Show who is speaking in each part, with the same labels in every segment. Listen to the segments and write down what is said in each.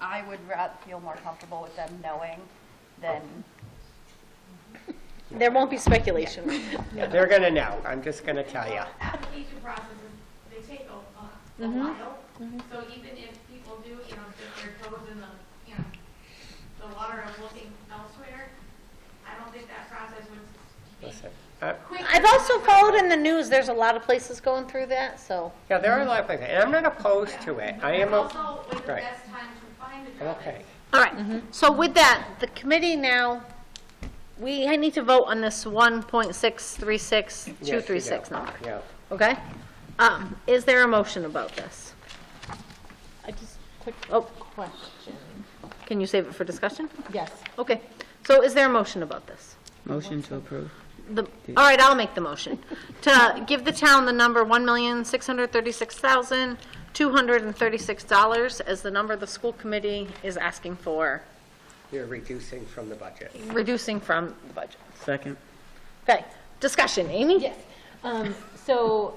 Speaker 1: I would rather feel more comfortable with them knowing than,
Speaker 2: There won't be speculation.
Speaker 3: Yeah, they're gonna know, I'm just gonna tell you.
Speaker 4: Application processes, they take a, a a
Speaker 2: Mm-hmm.
Speaker 4: while, so even if people do, you know, dip their toes in the, you know, the water of looking elsewhere, I don't think that process would be
Speaker 3: Listen, uh,
Speaker 4: quick.
Speaker 2: I've also followed in the news, there's a lot of places going through that, so.
Speaker 3: Yeah, there are a lot of places, and I'm not opposed to it, I am,
Speaker 4: It's
Speaker 3: o-
Speaker 4: also when the
Speaker 3: right.
Speaker 4: best time to find a
Speaker 3: I'm
Speaker 4: job
Speaker 3: okay.
Speaker 4: is.
Speaker 2: All right, so with that, the committee now, we need to vote on this one point six three six
Speaker 3: Yes,
Speaker 2: two
Speaker 3: you
Speaker 2: three
Speaker 3: do.
Speaker 2: six number,
Speaker 3: Yeah,
Speaker 2: okay? Um, Is there a motion about this?
Speaker 5: I just, quick
Speaker 2: Oh.
Speaker 5: question.
Speaker 2: Can you save it for discussion?
Speaker 5: Yes.
Speaker 2: Okay, so is there a motion about this?
Speaker 6: Motion to approve.
Speaker 2: The, all right, I'll make the motion. To give the town the number $1,636,236 as the number the school committee is asking for,
Speaker 3: you're reducing from the budget.
Speaker 2: reducing from the budget.
Speaker 6: Second.
Speaker 2: Okay, discussion, Amy?
Speaker 5: Yes. Um, so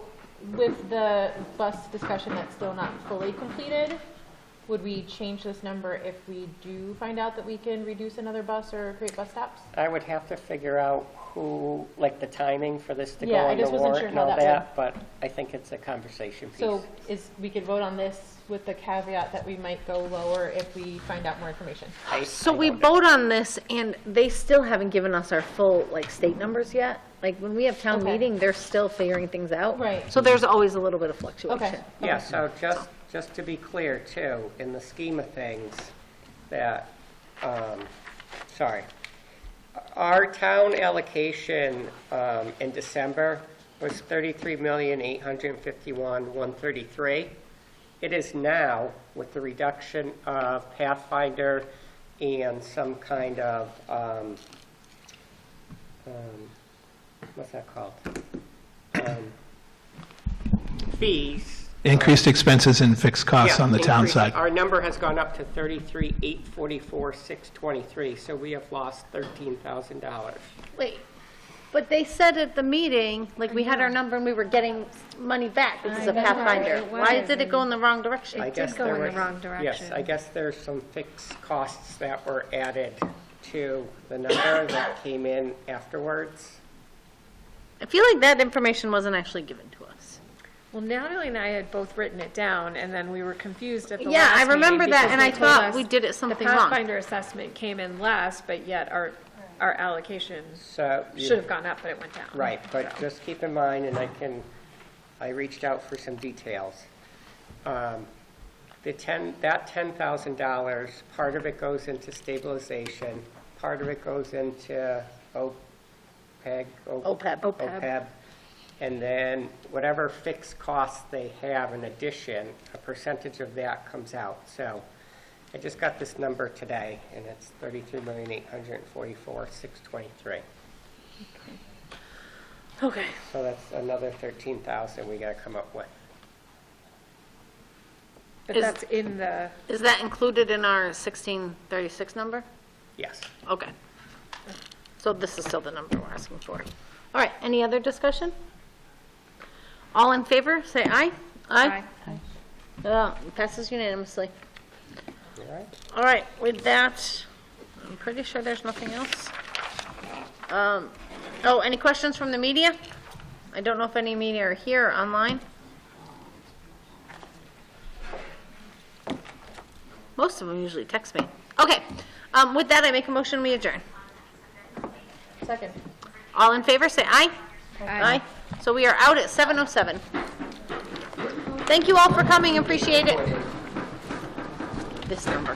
Speaker 5: with the bus discussion that's still not fully completed, would we change this number if we do find out that we can reduce another bus or create bus stops?
Speaker 3: I would have to figure out who, like, the timing for this to go
Speaker 5: Yeah, I
Speaker 3: on the
Speaker 5: just wasn't
Speaker 3: warrant
Speaker 5: sure
Speaker 3: and
Speaker 5: how
Speaker 3: all
Speaker 5: that
Speaker 3: that, but I think it's a conversation piece.
Speaker 5: So is, we could vote on this with the caveat that we might go lower if we find out more information.
Speaker 3: I-
Speaker 2: So
Speaker 3: I
Speaker 2: we
Speaker 3: don't know.
Speaker 2: vote on this, and they still haven't given us our full, like, state numbers yet. Like, when we have town
Speaker 5: Okay.
Speaker 2: meeting, they're still figuring things out.
Speaker 5: Right.
Speaker 2: So there's always a little bit of fluctuation.
Speaker 5: Okay.
Speaker 3: Yeah, so just, just to be clear too, in the scheme of things, that, um, sorry, our town allocation, um, in December was thirty-three million, eight hundred and fifty-one, one thirty-three. It is now, with the reduction of Pathfinder and some kind of, um, um, what's that called? Um, Fees,
Speaker 7: increased expenses and fixed costs
Speaker 3: yeah,
Speaker 7: on the town
Speaker 3: increase-
Speaker 7: side.
Speaker 3: Our number has gone up to 33, 844, 623, so we have lost $13,000.
Speaker 2: Wait, but they said at the meeting, like, we had our number and we were getting money back because of Pathfinder. Why did it go in the wrong direction?
Speaker 3: I guess there were- Yes, I guess there's some fixed costs that were added to the number that came in afterwards.
Speaker 2: I feel like that information wasnwasn't actually given to us.
Speaker 8: Well, Natalie and I had both written it down, and then we were confused at the
Speaker 2: Yeah,
Speaker 8: last
Speaker 2: I remember
Speaker 8: meeting
Speaker 2: that,
Speaker 8: because
Speaker 2: and
Speaker 8: they
Speaker 2: I
Speaker 8: told
Speaker 2: thought
Speaker 8: us
Speaker 2: we did it something
Speaker 8: The
Speaker 2: wrong.
Speaker 8: Pathfinder assessment came in less, but yet our, our allocation
Speaker 3: So. you-
Speaker 8: should have gone up, but it went down.
Speaker 3: Right, but just keep in mind, and I can, I reached out for some details. Um, The 10, that $10,000, part of it goes into stabilization, part of it goes into E OPEB.
Speaker 2: OPEB.
Speaker 3: OPEB. E And then whatever fixed costs they have in addition, a percentage of that comes out. So I just got this number today, and it's 33,844,623.
Speaker 2: Okay.
Speaker 3: So that's another 13,000 we got to come up with.
Speaker 8: But
Speaker 2: Is-
Speaker 8: that's in the,
Speaker 2: Is that included in our 1636 number?
Speaker 3: Yes.
Speaker 2: Okay. So this is still the number we're asking for. All right, any other discussion? All in favor, say aye. Aye. Uh, Passes unanimously.
Speaker 3: All right.
Speaker 2: All right, with that, I'm pretty sure there's nothing else. Um, Oh, any questions from the media? I don't know if any media are here or online. Most of them usually text me. Okay, um, with that, I make a motion, we adjourn.
Speaker 5: Second.
Speaker 2: All in favor, say aye. Aye. So we are out at 7:07. Thank you all for coming, appreciate it. This number.